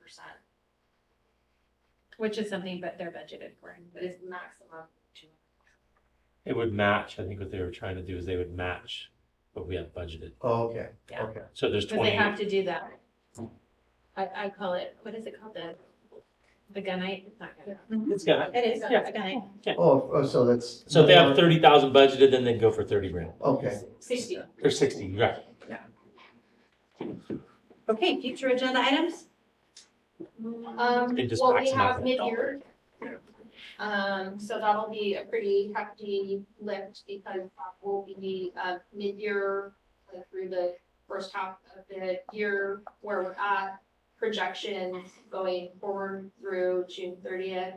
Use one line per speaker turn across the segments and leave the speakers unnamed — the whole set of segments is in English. percent,
which is something, but they're budgeted for.
but it's maximum two.
It would match, I think what they were trying to do is they would match what we had budgeted.
Oh, okay,
Yeah.
okay.
So there's
Because they
twenty,
have to do that. I, I call it, what is it called, the, the gunite? It's not gunite.
it's got,
It is,
Yeah.
it's a gunite.
Oh, oh, so that's.
so if they have thirty thousand budgeted, then they'd go for thirty grand,
Okay,
Sixty.
or sixty, right?
Okay, future agenda items?
Mm-hmm.
Um,
They just
well, we
maximize
have
that
mid-year. Um, so that'll be a pretty hefty lift because that will be, uh, mid-year uh, through the first half of the year where we're at. Projections going forward through June thirtieth.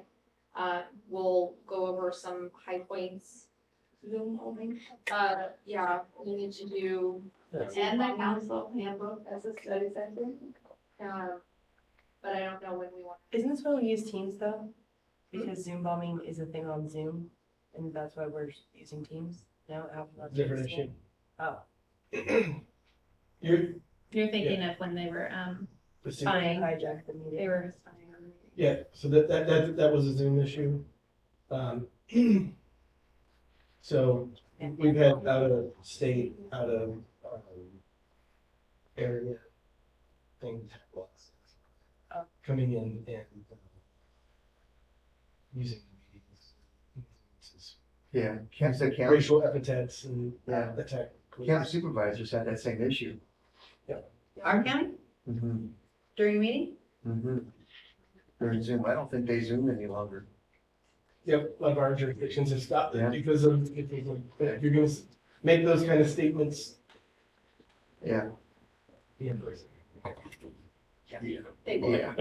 Uh, we'll go over some high points. Uh, yeah, we need to do,
Yes.
And the
council handbook as a study session?
uh, but I don't know when we want
Isn't this when we use Teams though?
Hmm?
Because Zoom bombing is a thing on Zoom, and that's why we're using Teams now. Apple not
Different
using it?
issue.
Oh,
You're,
You're thinking of when they were, um,
the Zoom-
they
spying,
hijacked the
they
meeting.
were spying on me.
yeah, so that, that, that, that was a Zoom issue. Um, so we've had out of state, out of, um, area things coming in and um, using the meetings. It's
yeah, camp, the camp,
Racial epithets and uh,
Yeah.
attack.
camp supervisors had that same issue.
Our county
Mm-hmm,
during a meeting?
mm-hmm. During Zoom, I don't think they Zoom any longer.
Yep, a lot of our jurisdictions have stopped
Yeah.
it because of, if you- if you're gonna s- make those kind of statements,
Yeah,
be in person.
to.
yeah.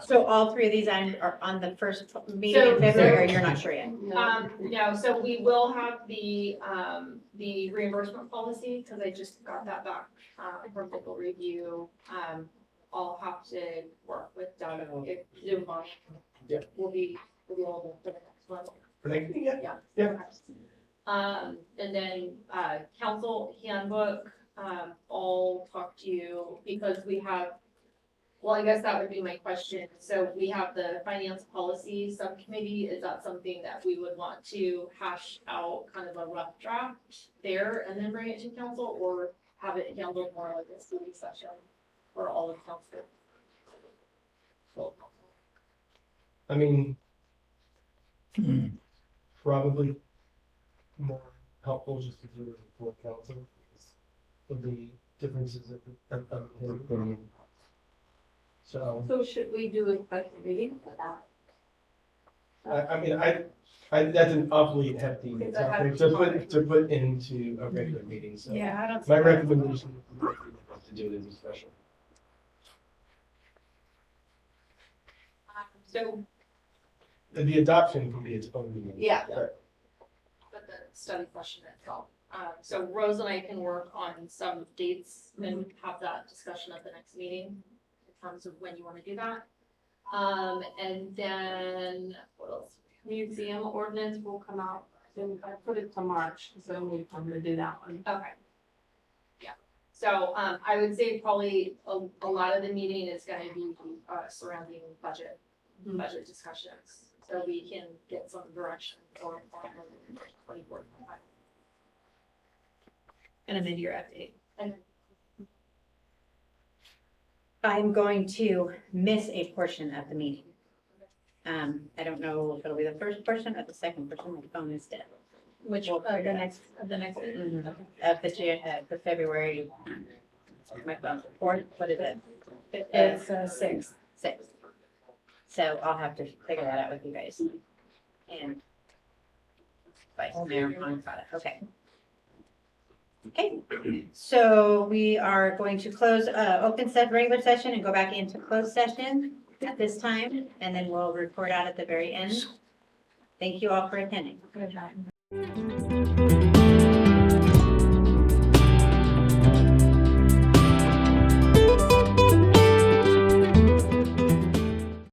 So all three of these items are on the first meeting
So-
in February, or you're not sure yet?
Um, no, so we will have the, um, the reimbursement policy, because I just got that back, uh, from legal review. Um, I'll have to work with Doug if Zoom on.
Yeah.
Will be available for the next one.
But I think, yeah, Yeah.
Um, and then, uh, council handbook, um, I'll talk to you because we have, well, I guess that would be my question. So we have the finance policy subcommittee. Is that something that we would want to hash out kind of a rough draft there and then bring it to council or have it handled more like a study session for all of council? Full council.
I mean, probably more helpful just to do it for council. because Of the differences of, of, of opinion. So,
So should we do a special meeting for that?
I, I mean, I, I, that's an awfully hefty
Because I have-
topic to put, to put into a regular meeting, so.
Yeah, I don't.
My recommendation is to do it as a special.
Um, So,
The adoption can be its own meeting.
yeah,
Right.
but the study session itself. Um, so Rose and I can work on some dates and have that discussion at the next meeting in terms of when you want to do that. Um, and then what else?
Museum ordinance will come out, then I put it to March, so we- I'm gonna do that one.
Okay. Yeah, so, um, I would say probably a, a lot of the meeting is gonna be, uh, surrounding budget, budget discussions. So we can get some direction or, or, or,
And a mid-year update.
and
I'm going to miss a portion of the meeting. Um, I don't know if it'll be the first portion or the second portion, my phone is dead.
Which, uh, the next, of the next.
Of the, Jan- uh, the February, my phone's fourth, what is it?
It's uh, six.
Six. So I'll have to figure that out with you guys. And. Vice Mayor Moncada, okay. Okay, so we are going to close, uh, open set regular session and go back into closed session at this time, and then we'll report out at the very end. Thank you all for attending.
Good job.